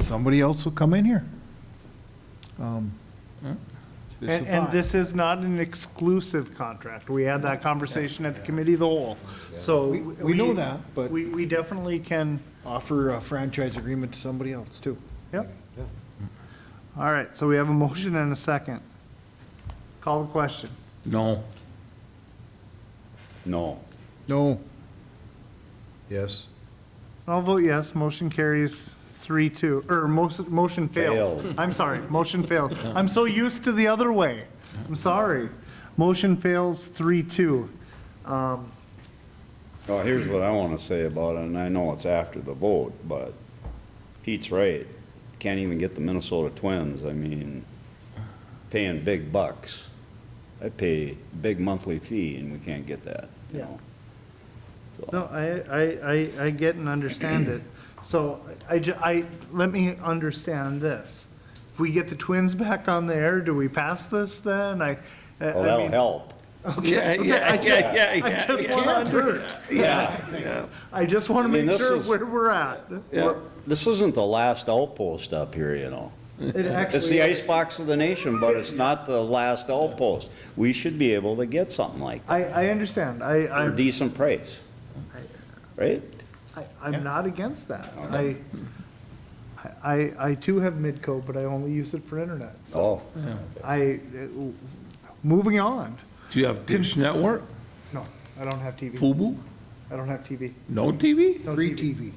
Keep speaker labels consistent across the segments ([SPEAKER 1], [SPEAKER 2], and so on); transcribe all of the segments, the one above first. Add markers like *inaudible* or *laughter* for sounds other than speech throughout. [SPEAKER 1] somebody else will come in here. Um, it's
[SPEAKER 2] And,
[SPEAKER 1] a
[SPEAKER 2] and
[SPEAKER 1] thought.
[SPEAKER 2] this is not an exclusive contract. We had that conversation at the committee of the whole, so.
[SPEAKER 1] We- we know that, but-
[SPEAKER 2] We, we definitely can,
[SPEAKER 1] Offer a franchise agreement to somebody else, too.
[SPEAKER 2] yep. All right, so we have a motion and a second. Call the question.
[SPEAKER 3] No.
[SPEAKER 4] No.
[SPEAKER 1] No.
[SPEAKER 5] Yes.
[SPEAKER 2] I'll vote yes, motion carries three, two, or most, motion fails. *laughs* I'm sorry, motion fails. I'm so used to the other way. I'm sorry. Motion fails three, two. Um,
[SPEAKER 4] Well, Oh, here's what I want to say about it, and I know it's after the vote, but Pete's right. Can't even get the Minnesota Twins, I mean, paying big bucks. I pay big monthly fee and we can't get that, you
[SPEAKER 2] Yeah.
[SPEAKER 4] know?
[SPEAKER 2] No, I, I, I, I get and understand it. So I, ju- I, let me understand this. If we get the Twins back on the air, do we pass this then? I. I-
[SPEAKER 4] Well,
[SPEAKER 2] I
[SPEAKER 4] Oh, that'll
[SPEAKER 2] mean-
[SPEAKER 4] help.
[SPEAKER 3] Yeah, yeah, yeah, yeah,
[SPEAKER 2] I just want to under, I just want to
[SPEAKER 4] I mean,
[SPEAKER 2] make
[SPEAKER 4] this
[SPEAKER 2] sure
[SPEAKER 4] is-
[SPEAKER 2] where we're at.
[SPEAKER 4] We're- This isn't the last outpost up here, you know?
[SPEAKER 2] It
[SPEAKER 4] It's the
[SPEAKER 2] actually,
[SPEAKER 4] icebox of the nation, but it's not the last outpost. We should be able to get something like
[SPEAKER 2] I, I understand. I,
[SPEAKER 4] that, for
[SPEAKER 2] I,
[SPEAKER 4] decent price. Right?
[SPEAKER 2] I- I'm not against that. I, I, I- I too have Midco, but I only use it for internet. So
[SPEAKER 4] Oh,
[SPEAKER 2] I, uh, moving on.
[SPEAKER 3] Do you have Dish Network,
[SPEAKER 2] No, I don't have TV.
[SPEAKER 3] FUBU,
[SPEAKER 2] I don't have TV.
[SPEAKER 3] no TV?
[SPEAKER 2] No
[SPEAKER 1] Free TV.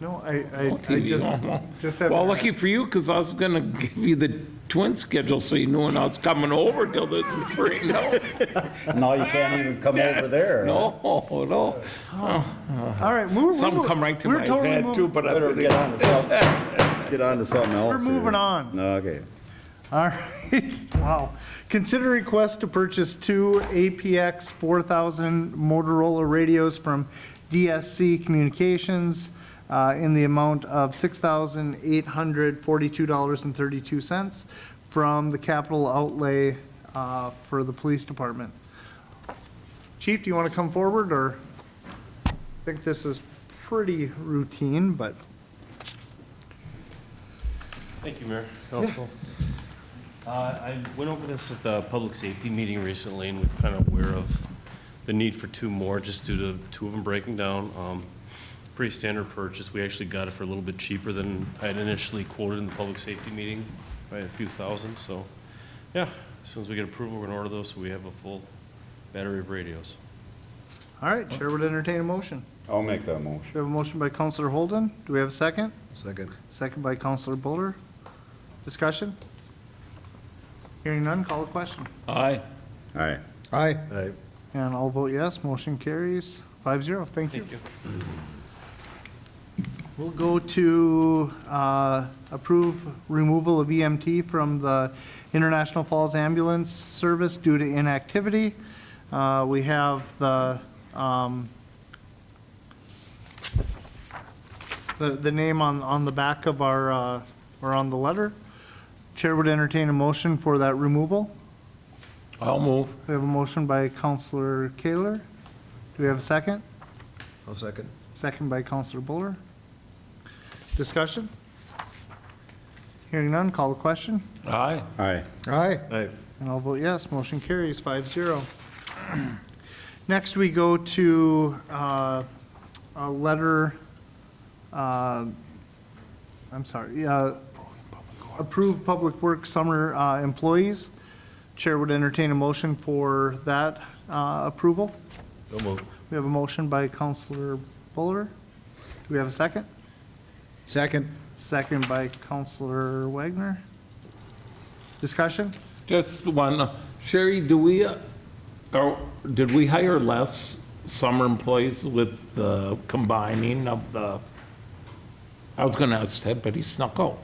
[SPEAKER 2] No, I,
[SPEAKER 3] No
[SPEAKER 2] I, I
[SPEAKER 3] TV,
[SPEAKER 2] just,
[SPEAKER 3] huh?
[SPEAKER 2] just have.
[SPEAKER 3] Well, lucky for you, because I was gonna give you the twin schedule so you knew when I was coming over till this was free. No,
[SPEAKER 4] now you can't even come over there.
[SPEAKER 3] no, no.
[SPEAKER 2] All right, move.
[SPEAKER 3] Some Uh-huh. come right to my
[SPEAKER 2] We're totally
[SPEAKER 3] head too,
[SPEAKER 2] moving,
[SPEAKER 3] but I
[SPEAKER 4] Better
[SPEAKER 3] better
[SPEAKER 4] get on to something, get on to something else.
[SPEAKER 2] we're moving
[SPEAKER 4] here.
[SPEAKER 2] on.
[SPEAKER 4] Okay.
[SPEAKER 2] All right, *laughs* wow. Consider request to purchase two APX 4000 Motorola radios from DSC Communications uh, in the amount of $6,842.32 from the capital outlay uh, for the police department. Chief, do you want to come forward, or? I think this is pretty routine, but.
[SPEAKER 6] Thank you, Mayor, Council. Uh, I went over this at the public safety meeting recently, and we're kind of aware of the need for two more, just due to two of them breaking down. Um, Pretty standard purchase. We actually got it for a little bit cheaper than I had initially quoted in the public safety meeting, by a few thousand, so, yeah. As soon as we get approval, we're gonna order those, so we have a full battery of radios.
[SPEAKER 2] All right, Chair would entertain a motion.
[SPEAKER 4] I'll make that motion.
[SPEAKER 2] We have a motion by Counselor Holden. Do we have a second?
[SPEAKER 5] Second.
[SPEAKER 2] Second by Counselor Buller. Discussion? Hearing none, call a question.
[SPEAKER 3] Aye.
[SPEAKER 4] All right.
[SPEAKER 1] Aye.
[SPEAKER 5] Aye.
[SPEAKER 2] And I'll vote yes, motion carries five zero. Thank you.
[SPEAKER 6] Thank you.
[SPEAKER 2] We'll go to uh, approve removal of EMT from the International Falls Ambulance Service due to inactivity. Uh, We have the, um, the, the name on, on the back of our, uh, or on the letter. Chair would entertain a motion for that removal.
[SPEAKER 3] I'll move.
[SPEAKER 2] We have a motion by Counselor Kaler. Do we have a second?
[SPEAKER 5] I'll second.
[SPEAKER 2] Second by Counselor Buller. Discussion? Hearing none, call the question,
[SPEAKER 3] Aye.
[SPEAKER 4] All right.
[SPEAKER 1] Aye.
[SPEAKER 5] Aye.
[SPEAKER 2] and I'll vote yes. Motion carries five zero. *clears throat* Next, we go to uh, a letter, uh, I'm sorry, uh, approved Public Works summer uh, employees. Chair would entertain a motion for that uh, approval.
[SPEAKER 5] So moved.
[SPEAKER 2] We have a motion by Counselor Buller. Do we have a second?
[SPEAKER 1] Second.
[SPEAKER 2] Second by Counselor Wagner. Discussion?
[SPEAKER 3] Just one, Sherry, do we, uh, or did we hire less summer employees with the combining of the, I was gonna ask Ted, but he snuck out.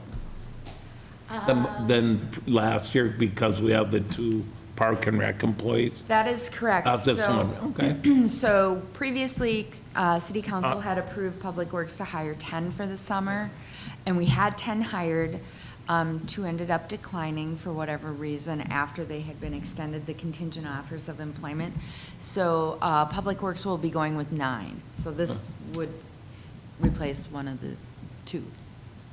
[SPEAKER 3] Than- Than last year because we have the two park and rec employees?
[SPEAKER 7] That is correct.
[SPEAKER 3] Not this
[SPEAKER 7] So-
[SPEAKER 3] one, okay.
[SPEAKER 7] So previously, uh, city council had approved Public Works to hire 10 for the summer, and we had 10 hired. um, Two ended up declining for whatever reason after they had been extended the contingent offers of employment. So uh, Public Works will be going with nine. So this would replace one of the two.